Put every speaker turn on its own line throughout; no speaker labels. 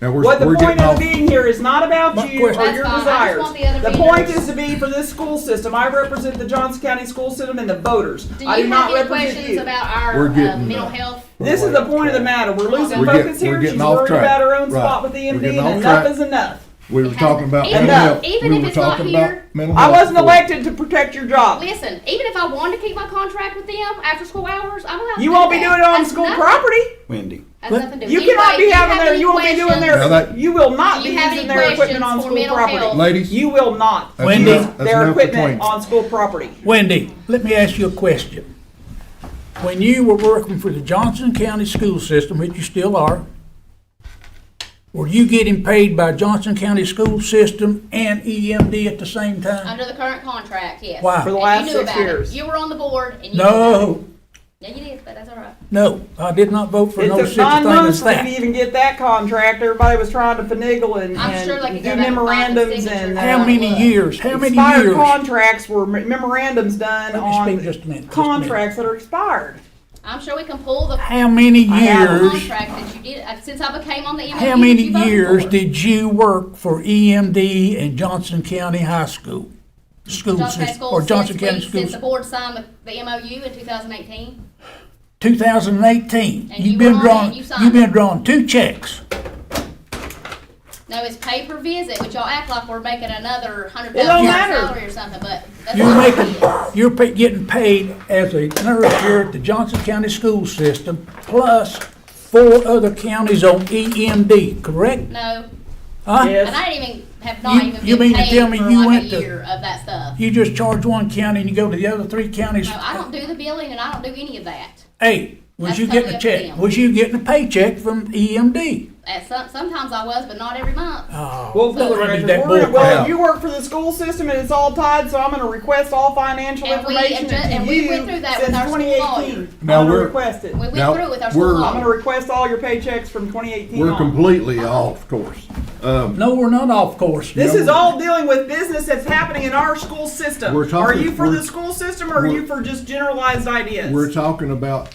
Now, we're,
What the
we're
point
getting
of
off.
the meeting here is not about you or
question- That's
your
fine. I just
desires.
want the other
The
meeting
point
notes.
is to be for this school system. I represent the Johnson County school system and the voters.
Do
I do
you
not
have any
represent
questions
you.
about
We're
our uh,
getting
mental
that.
health?
This is the point of the matter. We're losing
We're
get-
focus
we're
here. She's
getting off
worried
track.
about her own
Right.
spot with the
We're
MD
getting
and
off
enough
track.
is enough.
We were
It
talking
hasn't-
about
even-
mental health.
even
We
if
were
it's not
talking about
here,
mental
I
health
wasn't
before.
elected to protect your job.
Listen, even if I wanted to keep my contract with them after school hours, I'm allowed to
You
do
won't be
that.
doing it on
That's
school
nothing.
property.
Wendy.
That's nothing to do.
You
Anyway,
cannot
do
be
you
having
have
their,
any
you won't be doing
questions?
Now
their,
that-
you will not
Do
be
you have
using
any
their equipment
questions
on
for
school
mental health?
property.
Ladies,
You will not
that's
Wendy.
enough- that's
their
enough
equipment
between-
on school property.
Wendy, let me ask you a question. When you were working for the Johnson County School System, which you still are, were you getting paid by Johnson County School System and EMD at the same time?
Under the current contract, yes.
Why? For
the
And
last
you knew
six
about it.
years.
You were on the board and you. knew about it.
No,
Yeah, you did, but that's all right.
no, I did not vote for
It
no
took
such thing
nine months
as
for me to
that.
even get that contract. Everybody was trying to finagle and,
I'm sure they
and do
could go back and find the
memorandums
signatures.
and
How
How
uh,
many years, how many
expired
years?
contracts were me- memorandums done
Let me speak
on
just a minute, just a minute.
contracts that are expired.
I'm sure we can pull the
How many
I have
years,
contract that you did, uh, since I became on the MOU.
how many years did you work for E EMD and Johnson County High School?
Johnson
School
County
system,
Schools,
or Johnson
since we-
County School
Since the board signed the, the MOU in two thousand eighteen,
2018.
And you
You've been
were on it
drawing,
and you signed
you've been
it.
drawing two checks.
no, it's pay per visit, which y'all act like we're making another hundred
It don't
thousand dollars
matter.
salary or something, but that's
You're
not what
making,
it is.
you're pa- getting paid as a nurse here at the Johnson County School System, plus four other counties on EMD, correct?
No,
Huh?
Yes.
and I didn't even, have not
You-
even
you
been
mean to
paid
tell me
for
you
like a
went to-
year of that stuff.
You just charge one county and you go to the other three counties.
No, I don't do the billing and I don't do any of that.
Hey,
That's
was you
totally
getting a
up to
check?
them.
Was you getting a paycheck from E EMD?
At some, sometimes I was, but not every month.
Ah.
Well,
Oh. Well,
for the
I mean,
record,
that
we're-
bull
well,
crap.
you work for the school system and it's all tied, so I'm gonna request all financial
And we
information
adju- and
to
we
you
went through that
since
with our school
2018.
lawyer.
I'm
Now
gonna
we're-
request it.
We went
Now,
through it with our
we're-
school
I'm gonna
law.
request all your paychecks from 2018
We're
on.
completely off course. Um,
No, we're not off course.
This
No,
is all dealing with business that's happening in our school system.
We're
Are
talking-
you for the
we're-
school system or are
we're-
you for just generalized ideas?
we're talking about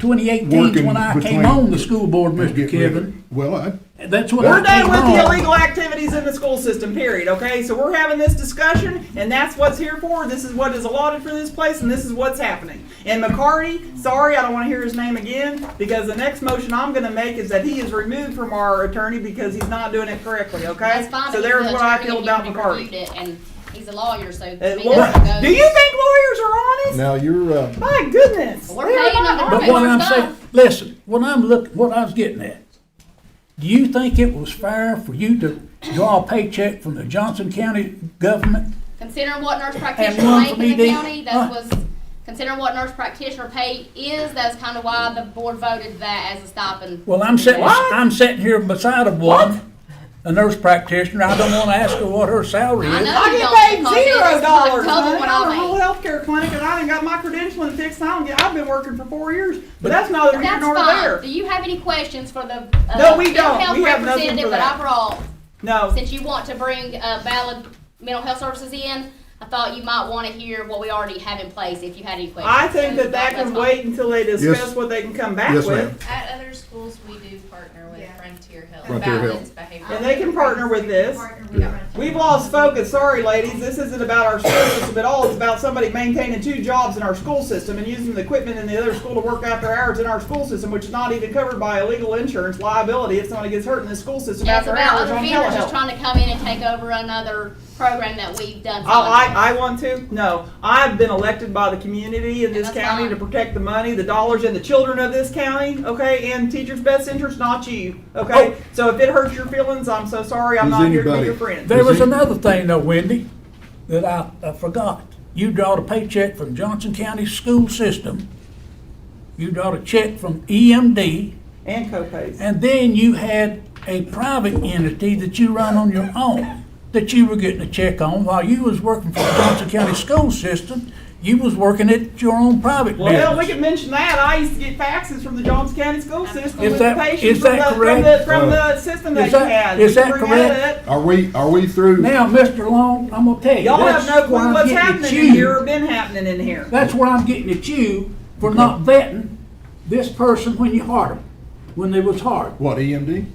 2018 is when I
Working
came
between-
on the school board,
getting
Mr.
rid of-
Kevin.
Well, I,
That's when I
We're done
came
with the
on.
illegal activities in the school system, period, okay? So we're having this discussion, and that's what's here for. This is what is allotted for this place, and this is what's happening. And McCarty, sorry, I don't want to hear his name again, because the next motion I'm going to make is that he is removed from our attorney because he's not doing it correctly, okay?
That's fine.
So
but
there's
he's
what
an
I
attorney
feel
and
about
he
McCarty.
reviewed it, And he's a lawyer, so.
Uh,
to me,
Laura,
that goes-
do you think lawyers are honest?
now you're, uh,
My goodness.
We're
They are
paying
not
them to
honest.
But what
Right,
I'm
it's
saying,
fine.
listen, what I'm looking, what I was getting at, do you think it was fair for you to draw a paycheck from the Johnson County government?
Considering what nurse
one
practitioner
for
pay in the
BD.
county,
Huh?
that was, considering what nurse practitioner pay is, that's kind of why the board voted that as a stipend.
Well, I'm sitting,
What?
I'm sitting here beside a woman, a nurse practitioner, I don't wanna ask her what her salary
I
is.
know.
I
you
get
don't,
paid
because it
zero
is not
dollars.
double
honey.
what
I'm
I
a whole
make.
healthcare clinic, and I didn't got my credentialing fixed. I don't get. I've been working for four years, but that's neither here
That's
nor
fine.
there.
Do you have any questions for the? uh,
No, we
mental
don't.
health
We have nothing for
representative
that.
I brought,
No,
since you want to bring uh, valid mental health services in, I thought you might want to hear what we already have in place if you had any questions.
I think that that
That's
can
fine.
wait until they discuss
Yes.
what they can come back
yes, ma'am.
with,
At other schools, we do partner with Frontier Health.
Frontier Health.
Balance behavioral.
and they can partner with this.
Yeah.
We've lost focus. Sorry, ladies. This isn't about our school system at all. It's about somebody maintaining two jobs in our school system and using the equipment in the other school to work out their hours in our school system, which is not even covered by illegal insurance liability if somebody gets hurt in the school system
Yeah, it's
after
about
hours
other
on
vendors
telehealth.
just trying to come in and take over another program that we've done.
Oh, I, I, I want to? No. I've been elected by the community in this
That's
county to
fine.
protect the money, the dollars, and the children of this county, okay? And teachers' best interest, not you, okay?
Oh.
So if it hurts your feelings, I'm so sorry. I'm
Does
not here to be
anybody-
your friend.
There was
Is it-
another thing though, Wendy, that I, I forgot. You drawed a paycheck from Johnson County School System. You drawed a check from E EMD,
And co-pays.
And then you had a private entity that you run on your own, that you were getting a check on while you was working for the Johnson County School System. You was working at your own private
Well, hell, we
business.
could mention that. I used to get faxes from the Johnson County school system
Is
with
that-
patients
is
from the,
that
from the,
correct? Uh,
from the system that
Is
you
that-
had.
is
We can
that
bring that
correct?
up.
Are we, are we through?
Now, Mr. Long, I'm gonna tell you.
Y'all have
that's
no
where
clue
I'm
what's
getting at
happening in
you.
here or been happening in here.
That's where I'm getting at you for not vetting this person when you hired them, when they was hired.
What, E EMD?